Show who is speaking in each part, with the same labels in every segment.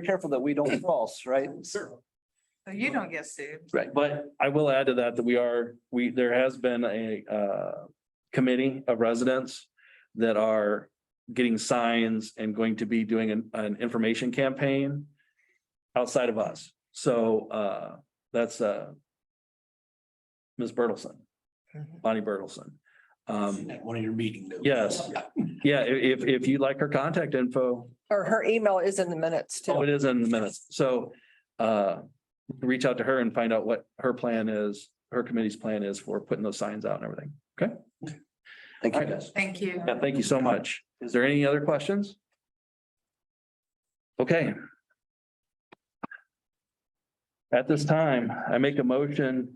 Speaker 1: careful that we don't cross, right?
Speaker 2: Sure.
Speaker 3: So you don't get sued.
Speaker 1: Right.
Speaker 4: But I will add to that that we are, we, there has been a uh committee of residents that are getting signs and going to be doing an, an information campaign outside of us. So uh that's uh Ms. Bertelson, Bonnie Bertelson. Um,
Speaker 2: At one of your meeting notes.
Speaker 4: Yes. yeah, i- if, if you'd like her contact info,
Speaker 5: Or her email is in the minutes
Speaker 4: Oh,
Speaker 5: too.
Speaker 4: it is in the minutes. So uh, reach out to her and find out what her plan is, her committee's plan is for putting those signs out and everything.
Speaker 1: Thank you,
Speaker 4: All right.
Speaker 1: guys.
Speaker 3: Thank you.
Speaker 4: Yeah, thank you so much. Is there any other questions? Okay. At this time, I make a motion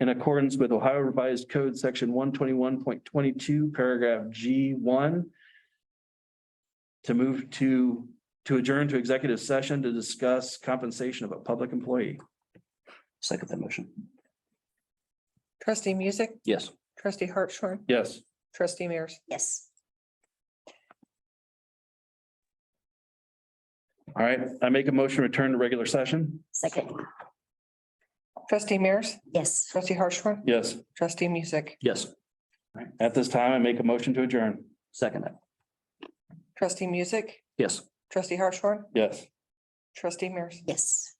Speaker 4: in accordance with Ohio Revised Code, section one twenty-one point twenty-two, paragraph G one, to move to, to adjourn to executive session to discuss compensation of a public employee.
Speaker 1: Second that motion.
Speaker 5: Trustee Music,
Speaker 1: Yes.
Speaker 5: trustee Hartshorn,
Speaker 4: Yes.
Speaker 5: trustee Mears.
Speaker 6: Yes.
Speaker 4: All right, I make a motion, to return to regular session.
Speaker 6: Second,
Speaker 5: Trustee Mears,
Speaker 6: yes.
Speaker 5: trustee Hartshorn,
Speaker 4: Yes.
Speaker 5: trustee Music,
Speaker 1: Yes.
Speaker 4: At this time, I make a motion to adjourn.
Speaker 1: Second that.
Speaker 5: trustee Music,
Speaker 1: Yes.
Speaker 5: trustee Hartshorn,
Speaker 4: Yes.
Speaker 5: trustee Mears.
Speaker 6: Yes.